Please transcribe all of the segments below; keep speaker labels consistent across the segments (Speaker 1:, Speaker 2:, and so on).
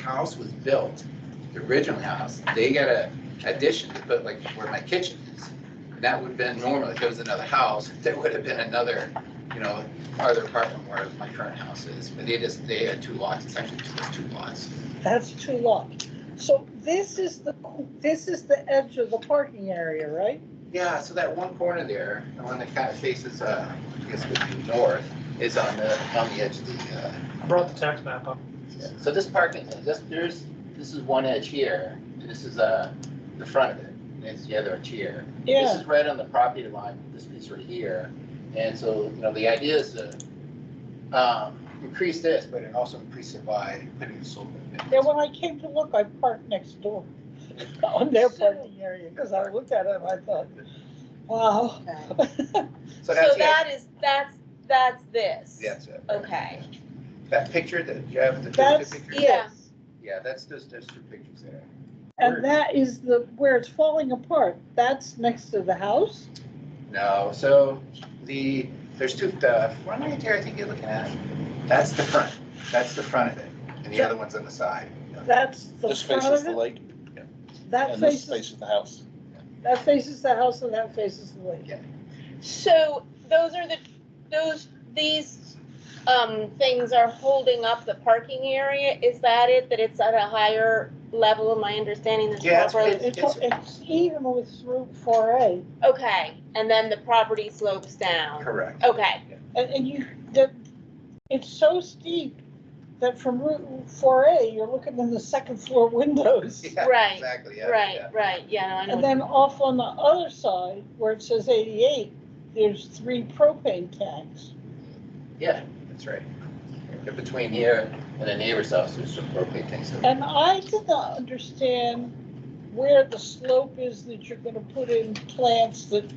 Speaker 1: house was built, the original house, they got a addition to put like where my kitchen is. And that would have been normal, if it was another house, there would have been another, you know, farther apart from where my current house is. But they just, they had two lots, it's actually two, two lots.
Speaker 2: That's two lots. So this is the, this is the edge of the parking area, right?
Speaker 1: Yeah, so that one corner there, the one that kind of faces, uh, I guess would be north, is on the, on the edge of the, uh,
Speaker 3: I brought the tax map up.
Speaker 1: Yeah, So this parking, this, there's, this is one edge here, and this is, uh, the front of it, and it's the other edge here. This
Speaker 2: Yeah,
Speaker 1: is right on the property line, this piece right here, and so, you know, the idea is to, um, increase this, but it also increase it by putting a solar
Speaker 2: yeah,
Speaker 1: panel.
Speaker 2: when I came to look, I parked next door on their parking area, because I looked at it and I thought, wow.
Speaker 1: So
Speaker 4: So
Speaker 1: that's it,
Speaker 4: that is, that's, that's this.
Speaker 1: that's it.
Speaker 4: Okay.
Speaker 1: That picture that, you have the
Speaker 2: That's,
Speaker 1: picture?
Speaker 4: Yeah.
Speaker 2: yes.
Speaker 1: Yeah, that's, there's, there's two pictures there.
Speaker 2: And that is the, where it's falling apart, that's next to the house?
Speaker 1: No, so the, there's two, the front right there, I think you're looking at, that's the front, that's the front of it, and the other one's on the side.
Speaker 2: That's the
Speaker 5: This
Speaker 2: front
Speaker 5: faces
Speaker 2: of
Speaker 5: the
Speaker 2: it?
Speaker 5: lake
Speaker 2: That
Speaker 5: and this
Speaker 2: faces,
Speaker 5: faces the house.
Speaker 2: that faces the house and that faces the lake.
Speaker 4: So those are the, those, these, um, things are holding up the parking area? Is that it, that it's at a higher level, am I understanding this
Speaker 1: Yeah, it's-
Speaker 4: properly?
Speaker 2: It's, it's even with Route four A,
Speaker 4: Okay, and then the property slopes down.
Speaker 1: Correct.
Speaker 4: Okay,
Speaker 2: and, and you, the, it's so steep that from Route four A, you're looking in the second floor windows.
Speaker 1: Yeah,
Speaker 4: Right,
Speaker 1: Exactly, yeah.
Speaker 4: right,
Speaker 1: yeah.
Speaker 4: right, yeah, no, I know.
Speaker 2: And then off on the other side, where it says eighty-eight, there's three propane tanks.
Speaker 1: Yeah, that's right. In Between here and the neighbor's house, there's some propane tanks. over there.
Speaker 2: And I did not understand where the slope is that you're gonna put in plants that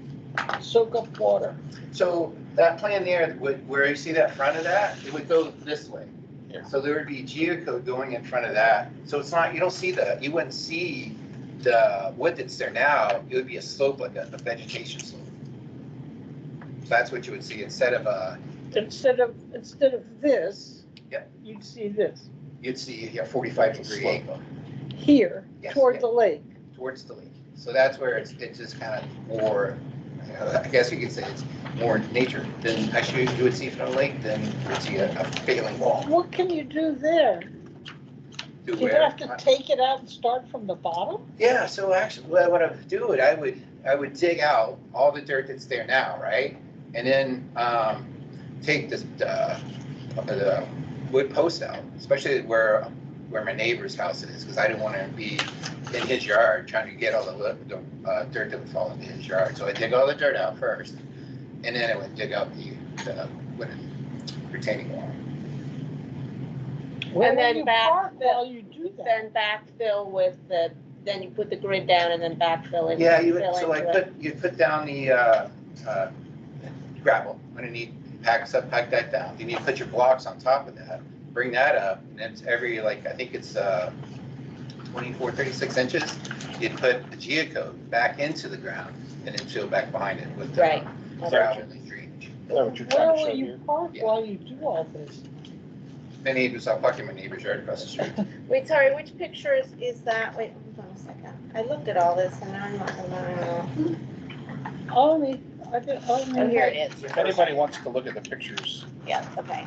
Speaker 2: soak up water.
Speaker 1: So that plan there, would- where you see that front of that, it would go this way.
Speaker 5: Yeah.
Speaker 1: So there would be geocode going in front of that. So it's not, you don't see the, you wouldn't see the wood that's there now. It would be a slope like a a vegetation slope. So that's what you would see instead of a,
Speaker 2: Instead of, instead of this.
Speaker 1: Yep.
Speaker 2: You'd see this,
Speaker 1: you'd see a 45 degree
Speaker 5: Slope.
Speaker 1: angle
Speaker 2: here,
Speaker 1: Yes,
Speaker 2: toward
Speaker 1: yep.
Speaker 2: the lake.
Speaker 1: towards the lake. So that's where it's, it's just kind of more, you know, I guess you could say it's more nature than actually you would see from the lake than you would see a a failing wall.
Speaker 2: What can you do there?
Speaker 1: Do
Speaker 2: You'd
Speaker 1: where-
Speaker 2: have to take it out and start from the bottom?
Speaker 1: Yeah, so actually, what what I would do, it, I would, I would dig out all the dirt that's there now, right? And then, um, take this, uh, the wood post out, especially where, where my neighbor's house is, because I didn't want to be in his yard trying to get all the, wood- the, uh, dirt that would fall into his yard. So I dig all the dirt out first, and then I would dig out the, the wooden retaining wall.
Speaker 2: Where will
Speaker 4: then
Speaker 2: you
Speaker 4: back
Speaker 2: park
Speaker 4: the-
Speaker 2: while you do that?
Speaker 4: Then backfill with the, then you put the grid down and then backfill it.
Speaker 1: Yeah, you would,
Speaker 4: fill
Speaker 1: so
Speaker 4: into
Speaker 1: like,
Speaker 4: it.
Speaker 1: put, you put down the, uh, uh, gravel underneath, pack, sub, pack that down, then you put your blocks on top of that, bring that up, and it's every, like, I think it's, uh, 24, 36 inches, you'd put the geocode back into the ground, and then fill back behind it with the
Speaker 4: Right.
Speaker 1: gravel and the drainage.
Speaker 5: Is that what you're
Speaker 2: Where
Speaker 5: trying to
Speaker 2: will
Speaker 5: show
Speaker 2: you
Speaker 5: here?
Speaker 2: Park
Speaker 1: Yeah.
Speaker 2: while you do all this.
Speaker 1: My neighbors, I'm parking my neighbor's yard across the street.
Speaker 4: Wait, sorry, which picture is, is that? Wait, hold on a second. I looked at all this and now I'm not, I don't know.
Speaker 2: Only, I did, only.
Speaker 4: Oh, here it is.
Speaker 5: If anybody wants to look at the pictures,
Speaker 4: Yeah, okay.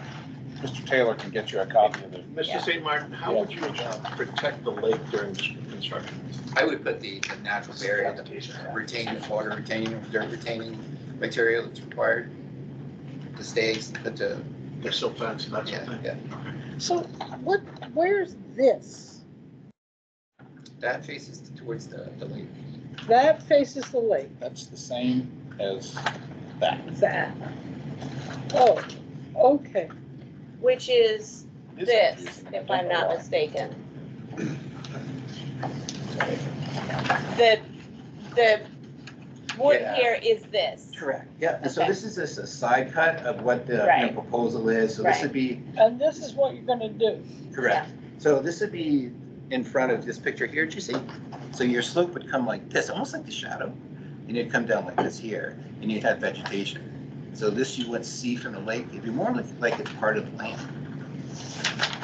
Speaker 5: Mr. Taylor can get you a copy of it.
Speaker 4: Yeah.
Speaker 6: Mr. St. Martin, how would you protect the lake during this construction?
Speaker 1: I would put the, the natural barrier, the retaining, water retaining, dirt retaining material that's required, the stakes, put the
Speaker 6: There's still plants and that sort of
Speaker 1: Yeah,
Speaker 6: thing.
Speaker 1: yeah.
Speaker 2: So what, where's this?
Speaker 1: That faces towards the, the lake.
Speaker 2: That faces the lake,
Speaker 5: That's the same as that.
Speaker 2: that. Oh, okay.
Speaker 4: Which is
Speaker 5: It is
Speaker 4: this,
Speaker 5: confusing.
Speaker 4: if I'm not
Speaker 5: Why?
Speaker 4: mistaken. The, the wood
Speaker 1: Yeah.
Speaker 4: here is this.
Speaker 1: Correct, yeah. And so
Speaker 4: Okay.
Speaker 1: this is just a side cut of what the you know,
Speaker 4: Right.
Speaker 1: proposal is. So this would be,
Speaker 2: And this is what you're gonna do.
Speaker 1: correct. So this would be in front of this picture here, do you see? So your slope would come like this, almost like the shadow. And it'd come down like this here, and you'd have vegetation. So this you would see from the lake, it'd be more like, like it's part of the land.